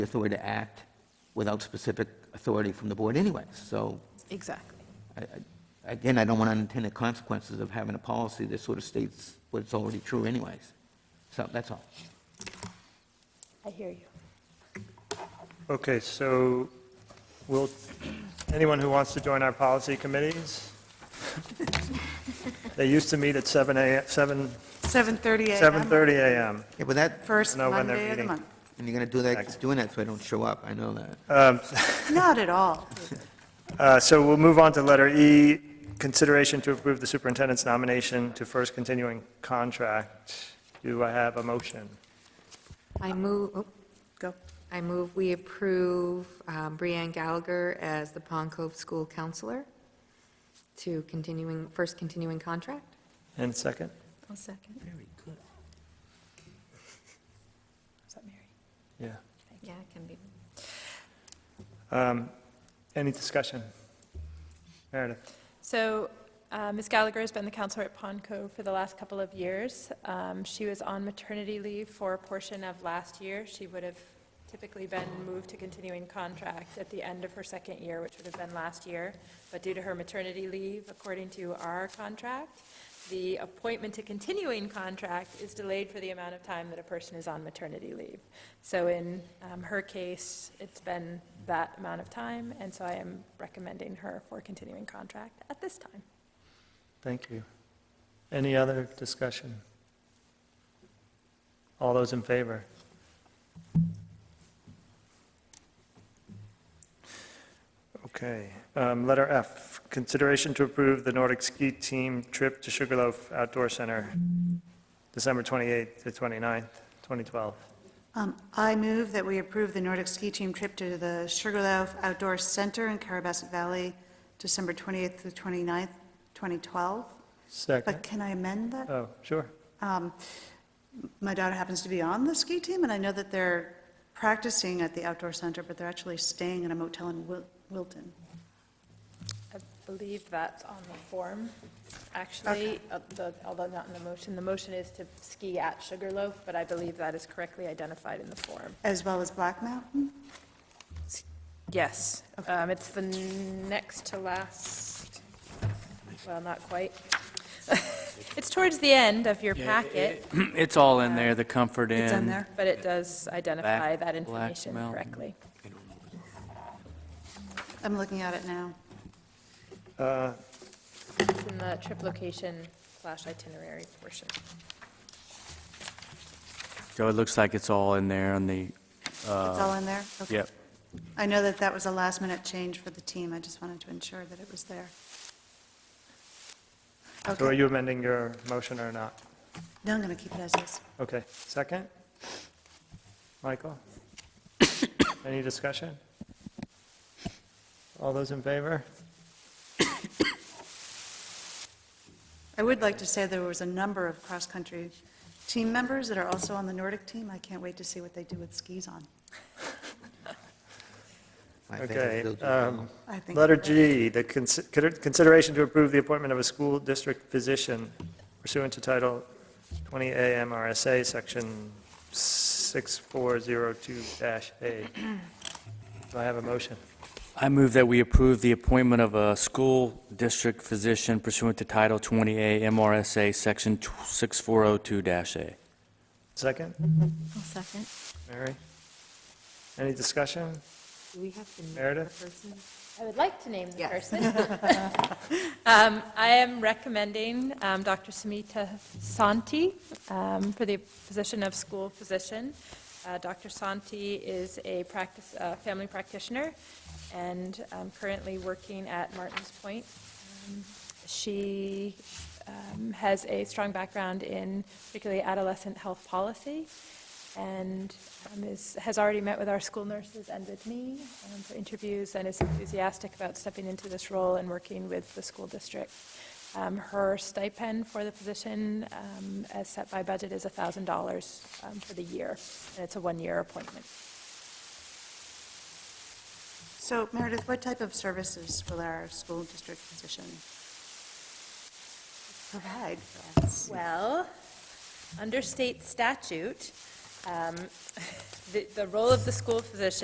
authority to act without specific authority from the board anyway. So, Exactly. I- I- again, I don't want unintended consequences of having a policy that sort of states what's already true anyways. So that's all. I hear you. Okay, so will, anyone who wants to join our policy committees? They used to meet at 7 a.m., 7, 7:30 a.m. 7:30 a.m. Yeah, but that, First No, when they're Monday of the meeting. month. and you're going to do that, keep doing that so I don't show up, I know that. Um, Not at all. uh, So we'll move on to letter E, consideration to approve the superintendent's nomination to first continuing contract. Do I have a motion? I move, oh, Go. I move we approve um, Breann Gallagher as the Pond Cove School Counselor to continuing, first continuing contract. And second? I'll second. Very good. Is that Mary? Yeah. Yeah, it can be. Um, Any discussion? Meredith? So uh, Ms. Gallagher has been the counselor at Pond Cove for the last couple of years. Um, She was on maternity leave for a portion of last year. She would have typically been moved to continuing contract at the end of her second year, which would have been last year. But due to her maternity leave, according to our contract, the appointment to continuing contract is delayed for the amount of time that a person is on maternity leave. So in um, her case, it's been that amount of time, and so I am recommending her for continuing contract at this time. Thank you. Any other discussion? All those in favor? Okay, um, letter F, consideration to approve the Nordic Ski Team trip to Sugarloaf Outdoor Center, December 28th to 29th, 2012. Um, I move that we approve the Nordic Ski Team trip to the Sugarloaf Outdoor Center in Carabasset Valley, December 28th through 29th, 2012. But Second, can I amend that? oh, sure, Um, Uh, My daughter happens to be on the ski team, and I know that they're practicing at the outdoor center, but they're actually staying in a motel in Wil- Wilton. I believe that's on the form, actually, uh, the- although not in the motion. The motion is to ski at Sugarloaf, but I believe that is correctly identified in the form. As well as Black Mountain? Yes, um, it's the next to last, well, not quite. It's towards the end of your Yeah, packet, it- It's all in there, the Comfort Inn. It's in there. but it does identify that Black information Mountain. correctly. I'm looking at it now. Uh, It's in the trip location slash itinerary portion. So it looks like it's all in there on the, It's all in there? Okay. yep. I know that that was a last-minute change for the team, I just wanted to ensure that it was there. So are Okay, you amending your motion or not? no, I'm going to keep it as is. Okay, second? Michael? Any discussion? All those in favor? I would like to say there was a number of cross-country team members that are also on the Nordic team, I can't wait to see what they do with skis on. My bad. Okay. Those- um, I think. Letter G, the consi- consider- consideration to approve the appointment of a school district physician pursuant to Title 20A MRSA, Section 6402-A. Do I have a motion? I move that we approve the appointment of a school district physician pursuant to Title 20A MRSA, Section 6402-A. Second? I'll second. Mary? Any discussion? Do we have to name the Meredith? person? I would like to name the Yes. person. Um, I am recommending um, Dr. Samita Santi um, for the position of school physician. Uh, Dr. Santi is a practice, a family practitioner and um, currently working at Martins Point. Um, She um, has a strong background in particularly adolescent health policy and um, is, has already met with our school nurses and with me um, for interviews and is enthusiastic about stepping into this role and working with the school district. Um, Her stipend for the position, um, as set by budget, is $1,000 um, for the year, and it's a one-year appointment. So Meredith, what type of services will our school district physician provide for us? Well, under state statute, Um, The the role of the school physician